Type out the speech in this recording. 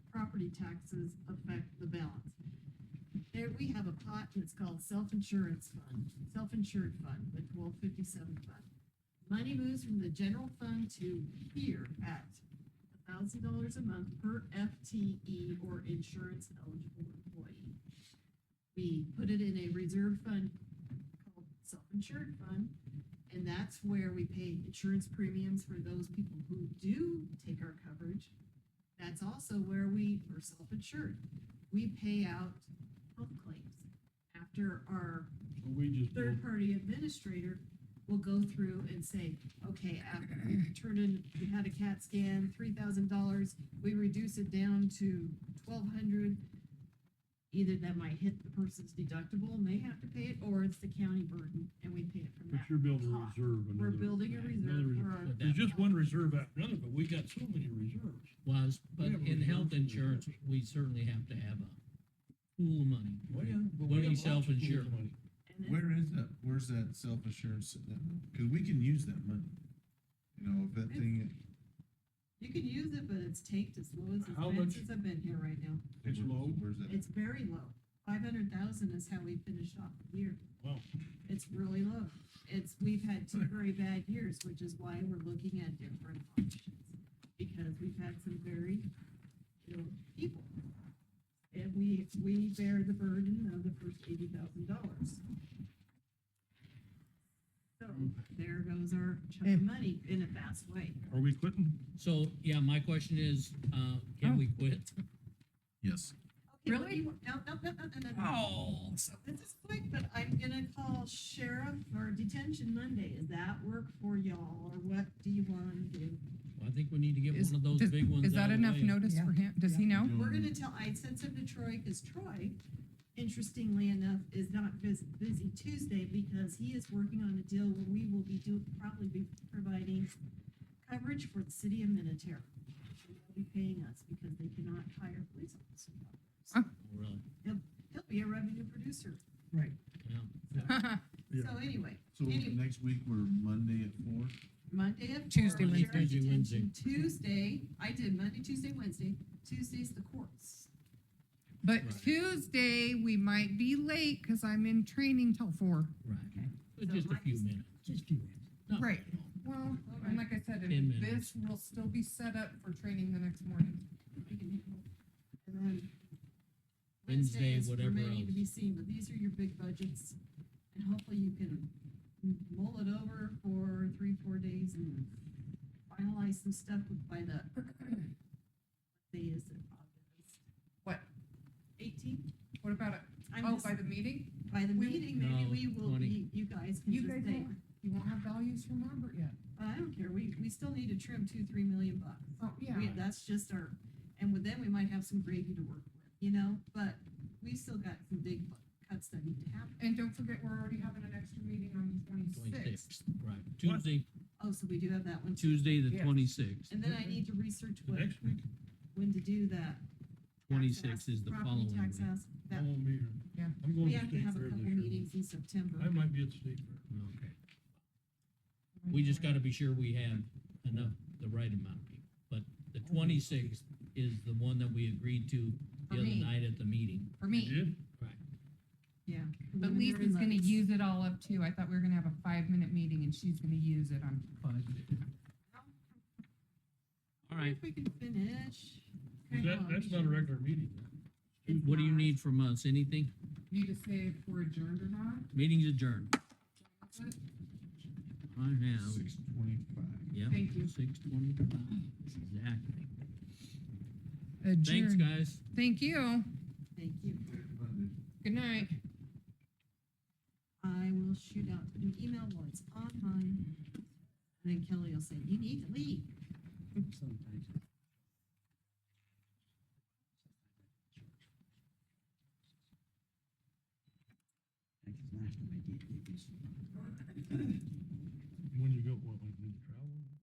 property taxes affect the balance. There, we have a pot that's called self-insurance fund, self-insured fund, the twelve fifty-seven fund. Money moves from the general fund to here at thousand dollars a month per FTE or insurance eligible employee. We put it in a reserve fund called self-insured fund. And that's where we pay insurance premiums for those people who do take our coverage. That's also where we are self-insured. We pay out health claims. After our We just, built- third-party administrator will go through and say, okay, after you turn in, you had a CAT scan, three thousand dollars, we reduce it down to twelve hundred. Either that might hit the person's deductible and they have to pay it, or it's the county burden and we pay it from but that. you're building a pot. reserve. We're another- building a another reserve reserve. for our. But There's that just one reserve after another, but we got so many reserves. was, but Yeah, but in we health don't do insurance, that. we certainly have to have a pool of money. Well, yeah, but What we do have you lots of pools of self-insure? money. and then- Where is that, where's that self-assurance, because we can use that money. You know, if that thing, You can use it, but it's tanked as low as it's How been much- since I've been here right now. It's low. where's that? It's very low. Five hundred thousand is how we finished off the year. Wow. It's really low. It's, we've had two very bad years, which is why we're looking at different options. Because we've had some very ill people. And we, we bear the burden of the first eighty thousand dollars. So there goes our chunk of money in a fast way. Are we quitting? So, yeah, my question is, uh, can we quit? Yes. Okay, what do you want- No, no, no, no, no, no, no. Oh. This is quick, but I'm gonna call sheriff or detention Monday. Does that work for y'all or what do you wanna do? I think we need to get Is- one of those does- big ones. Is out that of the enough way. notice for him? Does he know? We're gonna tell, I sent some to Troy, cause Troy, interestingly enough, is not busy, busy Tuesday because he is working on a deal where we will be do, probably be providing coverage for the city of Minnetonka. They'll be paying us because they cannot hire police officers. Oh, Really, He'll be a revenue producer. yeah. Yeah. So anyway, So Anyway. next week, we're Monday at four? Monday at. Tuesday, four, Wednesday. sheriff's Tuesday, Wednesday. detention. Tuesday, I did Monday, Tuesday, Wednesday. Tuesday's the courts. But Right. Tuesday, we might be late because I'm in training till four. Right. Okay. But So Just a my- few minutes. Just a few minutes. Right. Well, and like I said, Ten and minutes. this will still be set up for training the next morning. we can handle. And then Wednesday, is whatever remaining to else. be seen, but these are your big budgets. And hopefully you can m- mull it over for three, four days and finalize some stuff with- by the, what day is it, August? What? Eighteenth? What about it? I'm Oh, just, by the meeting? by the we- meeting, maybe No, we will 20. be, you guys can You just guys say, won't. You won't have values from Robert yet. I don't care, we, we still need to trim two, three million bucks. Oh, yeah. We, that's just our, and with them, we might have some gravy to work with, you know, but we still got some big bu- cuts that need to happen. And don't forget, we're already having an extra meeting on the twenty-sixth. Twenty-sixth, right. Tuesday, Oh, so we do have that one too. Tuesday, the Yes. twenty-sixth. And then I need to research The what, Next week? when to do that. tax 26 ask- is the property following tax week. ask, I That, won't be here. Yeah. I'm going we to have to state have a fair couple this year. meetings in September. I might be at state fair. Okay. We just gotta be sure we have enough, the right amount of people. But the twenty-sixth is the one that we agreed to For the other me. night at the meeting. For You me, did? Yeah. but preliminary Lisa's gonna levies. use it all up too. I thought we were gonna have a five-minute meeting and she's gonna use it on budget. All right, If we can finish. Is Hang That, on, that's we not a should- regular meeting. it's what do you not. need from us? Anything? Need to say if we're adjourned or not? Meeting's adjourned. I have, Six twenty-five. yeah, Thank you. six twenty-five, exactly. Thanks, Adjourned. guys. Thank you. Thank you. Good night. I will shoot out an email while it's online. And then Kelly will say, you need to leave. When you go, well, like, when you travel.